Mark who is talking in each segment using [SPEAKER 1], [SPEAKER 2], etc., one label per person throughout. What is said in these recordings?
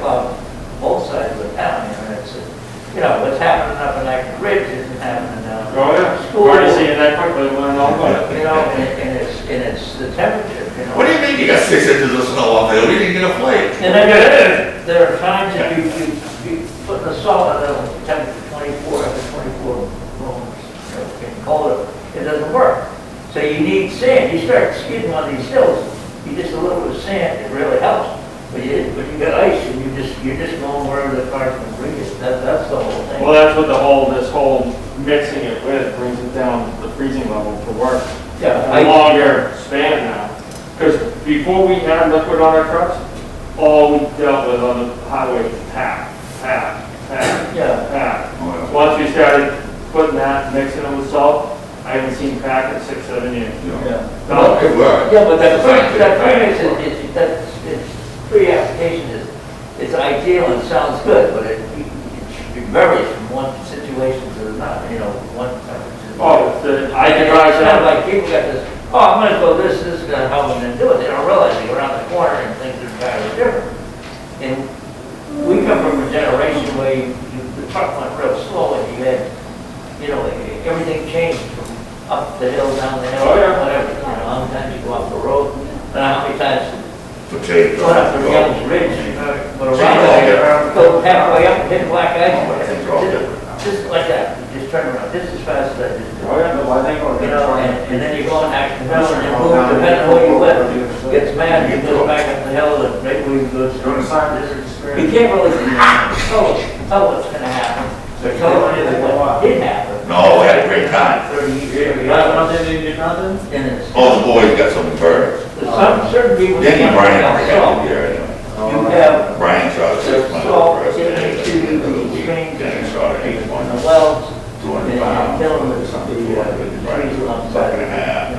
[SPEAKER 1] about both sides of the town, you know, it's, you know, what's happening up in Acton Ridge isn't happening down.
[SPEAKER 2] Oh, yeah.
[SPEAKER 1] School,
[SPEAKER 2] We're
[SPEAKER 1] you
[SPEAKER 2] seeing that quickly, we're not going.
[SPEAKER 1] know, and and it's, and it's the temperature, you know.
[SPEAKER 3] What do you mean you got six inches of snow up there? We didn't get a flake.
[SPEAKER 1] And then there, there are times that you, you, you put the salt at a temperature twenty-four, up to twenty-four rooms, you know, getting colder, it doesn't work. So you need sand, you start skidding on these hills, you just a little bit of sand, it really helps. But you, but you got ice and you just, you're just going wherever the cars can bring it, that, that's the whole
[SPEAKER 2] Well,
[SPEAKER 1] thing.
[SPEAKER 2] that's what the whole, this whole mixing it with brings it down to the freezing level for work.
[SPEAKER 1] Yeah,
[SPEAKER 2] A
[SPEAKER 1] I,
[SPEAKER 2] longer span now. Because before we had liquid on our trucks, all we dealt with on the highway was tap, tap, tap,
[SPEAKER 1] yeah,
[SPEAKER 2] tap. Once we started putting that, mixing it with salt, I haven't seen crack in six, seven years.
[SPEAKER 1] yeah.
[SPEAKER 2] No,
[SPEAKER 3] It worked.
[SPEAKER 1] Yeah, but that pre, that premix is, is, that's, it's, pre-application is, it's ideal and sounds good, but it, it varies from one situation to another, you know, one temperature. to another.
[SPEAKER 2] oh, the- I can drive
[SPEAKER 1] It's not like
[SPEAKER 2] that.
[SPEAKER 1] people got this, oh, I'm gonna go this, this is gonna help them to do it, they don't realize they go around the corner and things are entirely different. And we come from a generation where you, you- the truck went real slow and you had, you know, everything changed from up the hill, down the hill,
[SPEAKER 2] Oh, yeah.
[SPEAKER 1] whatever, you know, how many times you go off the road, and how many times
[SPEAKER 3] Potato.
[SPEAKER 1] Going up the
[SPEAKER 3] Well,
[SPEAKER 1] Young's Ridge, uh, with a
[SPEAKER 3] Gee,
[SPEAKER 1] roundabout,
[SPEAKER 3] yeah.
[SPEAKER 1] around, go halfway up, hit black ice.
[SPEAKER 2] Oh,
[SPEAKER 3] It's all different.
[SPEAKER 1] Just like that, you just turn around, this is fast, that is,
[SPEAKER 2] Oh, yeah, no, I think we're
[SPEAKER 1] you know, and, and then you go on action hill and you
[SPEAKER 2] Oh,
[SPEAKER 1] move,
[SPEAKER 2] down
[SPEAKER 1] depending
[SPEAKER 2] there.
[SPEAKER 1] on where you live. Gets mad, you go back up the hill and maybe we go through. You can't really tell, tell what's gonna happen. They're telling you that what did happen.
[SPEAKER 3] No, we had a great time. Oh.
[SPEAKER 1] Thirty years
[SPEAKER 2] You
[SPEAKER 1] ago,
[SPEAKER 2] nothing, you did nothing?
[SPEAKER 1] and it's,
[SPEAKER 3] All the boys got some birds.
[SPEAKER 1] some, certain people.
[SPEAKER 3] Danny Bryan, I forgot
[SPEAKER 1] So,
[SPEAKER 3] who there anyway.
[SPEAKER 1] You
[SPEAKER 2] Oh.
[SPEAKER 1] have
[SPEAKER 3] Brian shot six months
[SPEAKER 1] So,
[SPEAKER 3] for us.
[SPEAKER 1] getting into the train,
[SPEAKER 3] Danny shot eight
[SPEAKER 1] on
[SPEAKER 3] one,
[SPEAKER 1] the wells,
[SPEAKER 3] two
[SPEAKER 1] and
[SPEAKER 3] hundred
[SPEAKER 1] I'm
[SPEAKER 3] pounds.
[SPEAKER 1] telling them something, uh, trees alongside.
[SPEAKER 3] Second half.
[SPEAKER 1] it.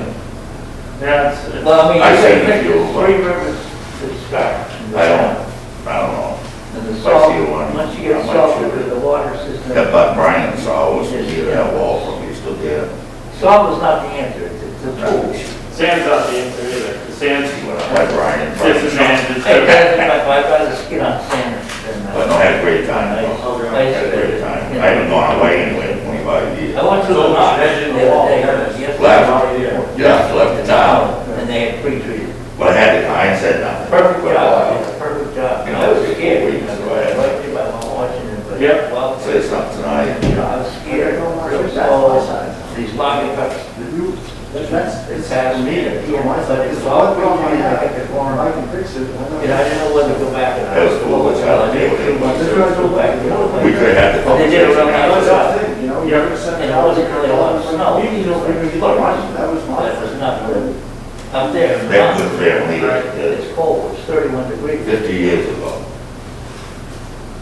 [SPEAKER 2] Yeah, it's, it's-
[SPEAKER 1] Well, I mean,
[SPEAKER 3] I
[SPEAKER 1] you
[SPEAKER 3] said
[SPEAKER 1] take
[SPEAKER 3] if you-
[SPEAKER 1] three rivers to start.
[SPEAKER 3] I don't, I don't know.
[SPEAKER 1] And the
[SPEAKER 3] I
[SPEAKER 1] salt,
[SPEAKER 3] see one.
[SPEAKER 1] once you get
[SPEAKER 3] I'm not
[SPEAKER 1] salt
[SPEAKER 3] sure.
[SPEAKER 1] through the water system.
[SPEAKER 3] That Buck Brian saw was near that wall from east to there.
[SPEAKER 1] Salt is not the answer, it's it's a tool.
[SPEAKER 2] sand's not the answer either, the sand's
[SPEAKER 3] That Brian.
[SPEAKER 2] disadvantage.
[SPEAKER 1] Hey, guys, if I- if I got a skin on sand, then. uh,
[SPEAKER 3] But no, I had a great time.
[SPEAKER 1] Nice,
[SPEAKER 3] though.
[SPEAKER 1] nice,
[SPEAKER 3] Had a great time.
[SPEAKER 1] yeah.
[SPEAKER 3] I haven't gone away anyway in twenty-five years.
[SPEAKER 1] I went to the
[SPEAKER 2] So,
[SPEAKER 1] lot the
[SPEAKER 2] imagine the wall,
[SPEAKER 1] other day,
[SPEAKER 2] yeah.
[SPEAKER 1] yesterday.
[SPEAKER 3] Left. Yeah, left the town,
[SPEAKER 1] And they had pre-treated.
[SPEAKER 3] but I had, I ain't said nothing.
[SPEAKER 1] Perfect
[SPEAKER 3] But, uh,
[SPEAKER 1] job, perfect job.
[SPEAKER 3] You know,
[SPEAKER 1] I was scared,
[SPEAKER 3] we
[SPEAKER 1] you know,
[SPEAKER 3] just go
[SPEAKER 1] I
[SPEAKER 3] ahead.
[SPEAKER 1] liked it, I was watching it, but.
[SPEAKER 2] Yep.
[SPEAKER 1] Well,
[SPEAKER 3] Say something tonight.
[SPEAKER 1] you know, I was scared, real slow, these logging trucks,
[SPEAKER 4] That's,
[SPEAKER 1] they
[SPEAKER 4] it's
[SPEAKER 1] passed
[SPEAKER 4] happened to
[SPEAKER 1] me,
[SPEAKER 4] me,
[SPEAKER 1] and,
[SPEAKER 4] it's
[SPEAKER 1] you know,
[SPEAKER 4] my side,
[SPEAKER 1] it's
[SPEAKER 4] it's
[SPEAKER 1] all
[SPEAKER 4] all
[SPEAKER 1] wrong,
[SPEAKER 4] wrong,
[SPEAKER 1] I
[SPEAKER 4] I
[SPEAKER 1] had
[SPEAKER 4] can form, I can fix it.
[SPEAKER 1] I didn't know whether to go back or not.
[SPEAKER 3] That was cool, which I liked.
[SPEAKER 1] didn't feel much
[SPEAKER 4] That's
[SPEAKER 1] to
[SPEAKER 4] right.
[SPEAKER 1] go back, you know, but-
[SPEAKER 3] We could have had the
[SPEAKER 1] But they did a real nice
[SPEAKER 4] That's
[SPEAKER 1] job.
[SPEAKER 4] the thing, you know,
[SPEAKER 2] Yeah.
[SPEAKER 4] you're sending.
[SPEAKER 1] And it wasn't really a lot of snow.
[SPEAKER 4] You don't even get
[SPEAKER 1] Look,
[SPEAKER 4] much, that was
[SPEAKER 1] But it
[SPEAKER 4] my.
[SPEAKER 1] was not good. Up there, in the
[SPEAKER 3] That good
[SPEAKER 1] mountains,
[SPEAKER 3] family, uh,
[SPEAKER 1] it's cold, it's thirty-one degrees,
[SPEAKER 3] fifty years uh, ago.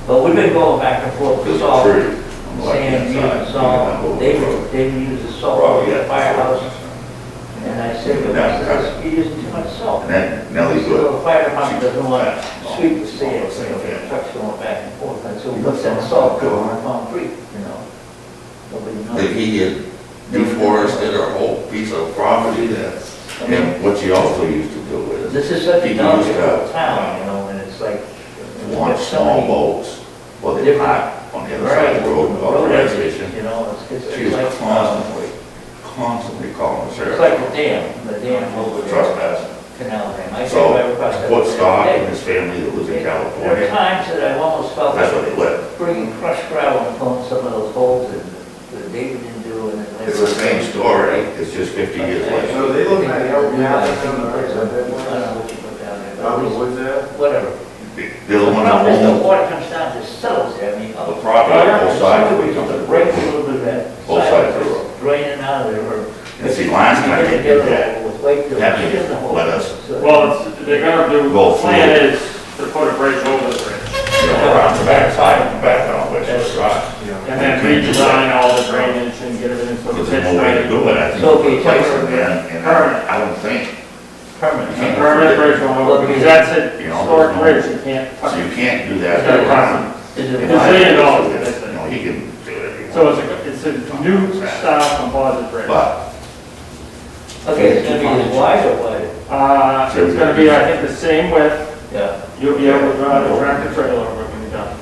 [SPEAKER 1] but we've been going back and forth,
[SPEAKER 3] It was
[SPEAKER 1] it's
[SPEAKER 3] a
[SPEAKER 1] all.
[SPEAKER 3] tree. I'm like
[SPEAKER 1] sand,
[SPEAKER 3] inside,
[SPEAKER 1] used salt,
[SPEAKER 3] you
[SPEAKER 1] they,
[SPEAKER 3] know,
[SPEAKER 1] would- they would use the salt
[SPEAKER 3] Probably,
[SPEAKER 1] in the
[SPEAKER 3] yeah.
[SPEAKER 1] firehouse. And I said, to myself, you're using too much salt.
[SPEAKER 3] And then Nellie
[SPEAKER 1] So the
[SPEAKER 3] Wood.
[SPEAKER 1] fire department doesn't want to sweep the sand, you know, the trucks going back and forth, and so what's that salt go on concrete, you know? Nobody
[SPEAKER 3] that
[SPEAKER 1] knows.
[SPEAKER 3] he had deforested a whole piece of property there.
[SPEAKER 1] I mean,
[SPEAKER 3] And what she also used to do is,
[SPEAKER 1] This is such a
[SPEAKER 3] He used
[SPEAKER 1] downhill
[SPEAKER 3] to-
[SPEAKER 1] town, you know, and it's like.
[SPEAKER 3] want small boats, well, they're not on the other side of the road, or the gas station.
[SPEAKER 1] You know, it's,
[SPEAKER 3] She
[SPEAKER 1] it's
[SPEAKER 3] was
[SPEAKER 1] like, uh,
[SPEAKER 3] constantly, constantly calling the
[SPEAKER 1] it's like
[SPEAKER 3] sheriff.
[SPEAKER 1] the dam, the dam over there.
[SPEAKER 3] Trespassing.
[SPEAKER 1] canal dam. I
[SPEAKER 3] So,
[SPEAKER 1] drive across that
[SPEAKER 3] What Scott
[SPEAKER 1] every day.
[SPEAKER 3] and his family that lives
[SPEAKER 1] There
[SPEAKER 3] in
[SPEAKER 1] are
[SPEAKER 3] California,
[SPEAKER 1] times that I've almost felt
[SPEAKER 3] that's
[SPEAKER 1] like
[SPEAKER 3] where they live.
[SPEAKER 1] bringing crushed gravel and filling some of those holes in that David didn't do and then.
[SPEAKER 3] It's the same story, it's just fifty years later.
[SPEAKER 4] So they look at it, oh, yeah,
[SPEAKER 1] I
[SPEAKER 4] that's
[SPEAKER 1] think
[SPEAKER 4] on the right
[SPEAKER 1] it's-
[SPEAKER 4] side, that
[SPEAKER 1] I don't know
[SPEAKER 4] one.
[SPEAKER 1] what you put down there, but
[SPEAKER 4] Out
[SPEAKER 1] at
[SPEAKER 4] of the
[SPEAKER 1] least,
[SPEAKER 4] woods there.
[SPEAKER 1] whatever. The
[SPEAKER 3] They're the one that
[SPEAKER 1] problem is the
[SPEAKER 3] owns
[SPEAKER 1] water comes down, just settles there, I mean.
[SPEAKER 3] the property on both sides of
[SPEAKER 1] The
[SPEAKER 3] the
[SPEAKER 1] break a
[SPEAKER 3] road.
[SPEAKER 1] little bit of that.
[SPEAKER 3] Both sides of the road.
[SPEAKER 1] Draining out of there or.
[SPEAKER 3] And see, last time they did that,
[SPEAKER 1] With Wakefield,
[SPEAKER 3] that
[SPEAKER 1] she
[SPEAKER 3] didn't
[SPEAKER 1] doesn't hold
[SPEAKER 3] let
[SPEAKER 1] it.
[SPEAKER 3] us-
[SPEAKER 1] So-
[SPEAKER 2] Well, it's, they're gonna do, the
[SPEAKER 3] Both.
[SPEAKER 2] plan is to put a bridge over the bridge,
[SPEAKER 3] you know, around the backside, and back on which is right.
[SPEAKER 2] and then redesign all the drainage and get everything so
[SPEAKER 3] Because
[SPEAKER 2] it's
[SPEAKER 3] there's no way to
[SPEAKER 2] ready.
[SPEAKER 3] do it, I think,
[SPEAKER 1] So if you
[SPEAKER 3] replace
[SPEAKER 1] take-
[SPEAKER 3] it, man, and I I don't think,
[SPEAKER 1] Permanent.
[SPEAKER 3] You can't-
[SPEAKER 2] Permanent bridge going over, because that's a historic bridge, you can't,
[SPEAKER 3] so you can't do that.
[SPEAKER 2] it's gonna cost
[SPEAKER 1] Is
[SPEAKER 3] You
[SPEAKER 1] it-
[SPEAKER 2] It's a million dollars.
[SPEAKER 3] know, he can do it if he
[SPEAKER 2] them. So
[SPEAKER 3] wants.
[SPEAKER 2] it's a, it's a new style composite bridge.
[SPEAKER 3] But
[SPEAKER 1] Okay, it's gonna be as wide or wide?
[SPEAKER 2] Uh, it's gonna be, I think, the same width,
[SPEAKER 1] Yeah.
[SPEAKER 2] you'll be able to drive a tractor trailer